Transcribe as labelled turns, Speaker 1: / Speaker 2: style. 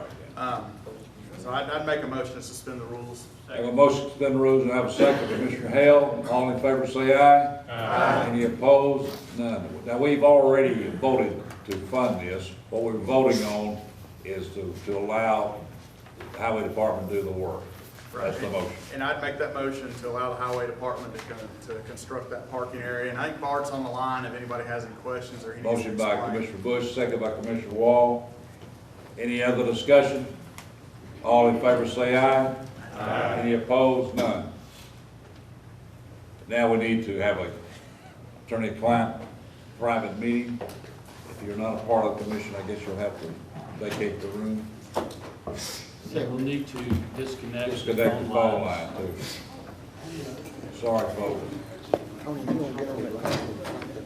Speaker 1: Um, So I'd, I'd make a motion to suspend the rules.
Speaker 2: I have a motion to suspend the rules and I have a second by Commissioner Hale. All in favor say aye. Aye. Any opposed? None. Now, we've already voted to fund this. What we're voting on is to, to allow the highway department to do the work. That's the motion.
Speaker 1: And I'd make that motion to allow the highway department to, con- to construct that parking area. And I think Bart's on the line if anybody has any questions or he needs to
Speaker 2: Motion by
Speaker 1: explain.
Speaker 2: Commissioner Bush, second by Commissioner Wall. Any other discussion? All in favor say aye. Aye. Any opposed? None. Now we need to have a attorney-client private meeting. If you're not a part of the commission, I guess you'll have to vacate the room,
Speaker 3: So we'll need to disconnect.
Speaker 2: disconnect the phone line too. Sorry, folks.
Speaker 4: Tony, you don't get on the line.